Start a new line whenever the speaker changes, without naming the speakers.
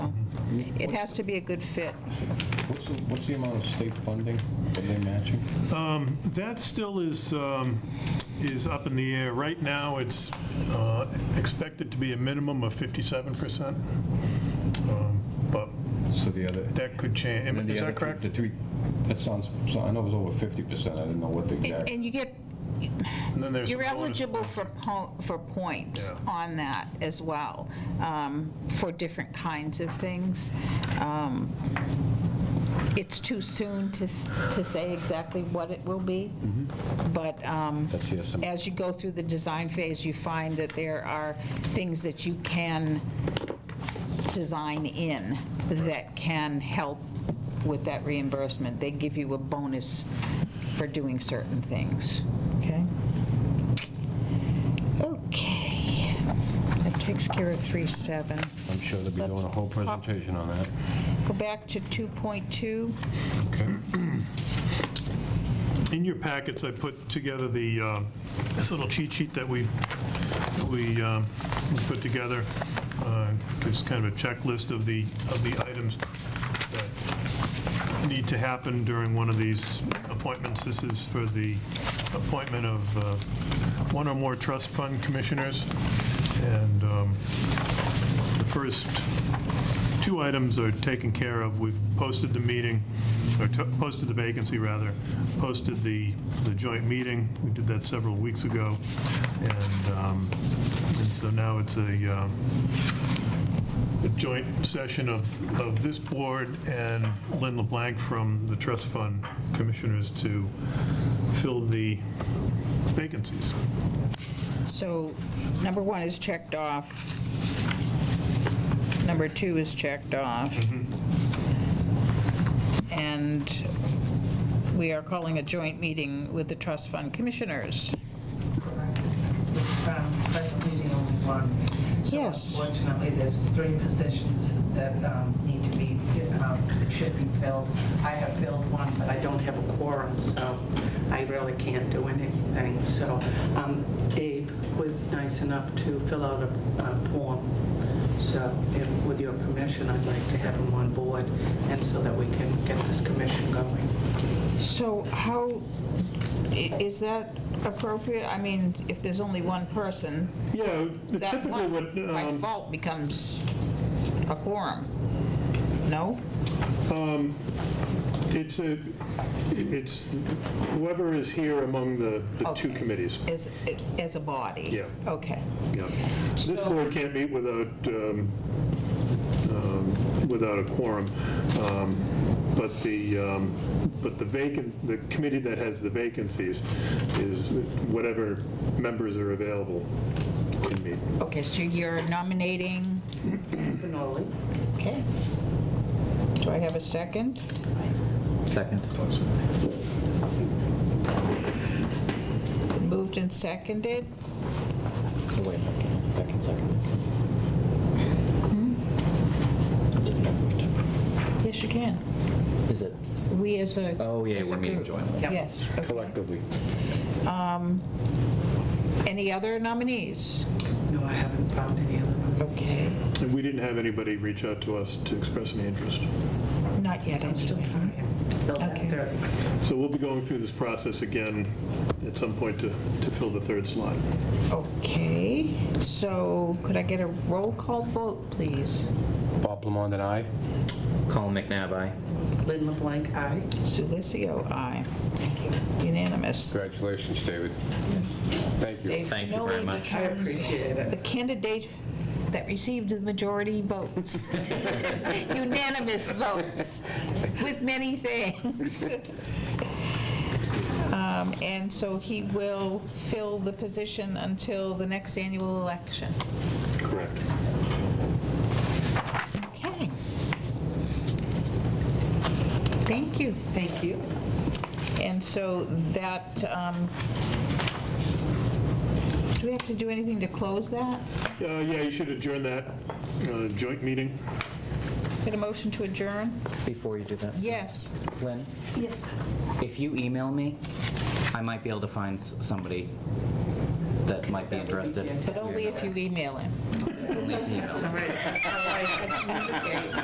it has to be a good fit.
What's the, what's the amount of state funding that they matching?
That still is, um, is up in the air. Right now, it's uh, expected to be a minimum of 57%, um, but
So the other.
that could change.
and then the
Is
other
that
three-
correct?
The three, that sounds, so I know it was over fifty percent, I didn't know what the
And
exact.
and you get,
And then there's some
you're
bonus-
eligible for, po- for points
Yeah.
on that as well, um, for different kinds of things. Um, It's too soon to, s- to say exactly what it will be,
Mm-hmm.
but um,
That's the estimate.
as you go through the design phase, you find that there are things that you can design in that can help with that reimbursement. They give you a bonus for doing certain things, okay? Okay, that takes care of 3.7.
I'm sure they'll be doing
Let's
a whole
pop-
presentation on that.
Go back to 2.2.
In your packets, I put together the, uh, this little cheat sheet that we, that we um, we put together, uh, gives kind of a checklist of the, of the items that need to happen during one of these appointments. This is for the appointment of uh, one or more trust fund commissioners, and um, the first two items are taken care of. We've posted the meeting, or to- posted the vacancy, rather, posted the, the joint meeting. We did that several weeks ago. And, um, and so now it's a, um, a joint session of, of this board and Lynn LeBlanc from the trust fund commissioners to fill the vacancies.
So number one is checked off. Number two is checked off. And we are calling a joint meeting with the trust fund commissioners.
Um, That's meeting only one.
Yes.
So unfortunately, there's three positions that um, need to be, um, that should be filled. I have filled one, but I don't have a quorum, so I really can't do anything. So um, Dave was nice enough to fill out a a form. So if- with your permission, I'd like to have him on board, and so that we can get this commission going.
So how, i- is that appropriate? I mean, if there's only one person,
Yeah, the
that
typical would.
one by
um,
default becomes a quorum. No?
It's a, it's whoever is here among the, the two
Okay.
committees.
As, as a body?
Yeah.
Okay.
Yeah. This
So-
board can't meet without, um, um, without a quorum. Um, But the, um, but the vacant, the committee that has the vacancies is whatever members are available can meet.
Okay, so you're nominating?
Cannoli?
Okay. Do I have a second?
Second. Oh,
Moved and seconded?
Oh, wait, second, second, second. Hmm? That's it.
Yes, you can.
Is it?
We as a.
Oh, yeah,
as a
we're meeting
group.
jointly.
Yep.
Yes. okay.
Collectively.
Any other nominees?
No, I haven't found any other one.
Okay.
And we didn't have anybody reach out to us to express any interest.
Not yet,
I'm still
anyway.
trying to fill
Okay.
that third.
So we'll be going through this process again at some point to, to fill the third slot.
Okay, so could I get a roll call vote, please?
Bob Lamond and I,
Colin McNabb, aye.
Lynn LeBlanc, aye.
Sulicio, aye. Thank you. Unanimous.
congratulations, David. Thank you.
Dave
Thank you very
Finoli
much.
I
becomes
appreciate it.
The candidate that received the majority votes, unanimous votes, with many things. Um, And so he will fill the position until the next annual election.
Correct.
Okay. Thank you.
Thank you.
And so that, um, do we have to do anything to close that?
Uh, Yeah, you should adjourn that uh, joint meeting.
Get a motion to adjourn?
Before you do that. Sue.
Yes.
Lynn,
Yes.
if you email me, I might be able to find s- somebody that might be interested.
But only if you email him.
Only if you email.
All right. All right.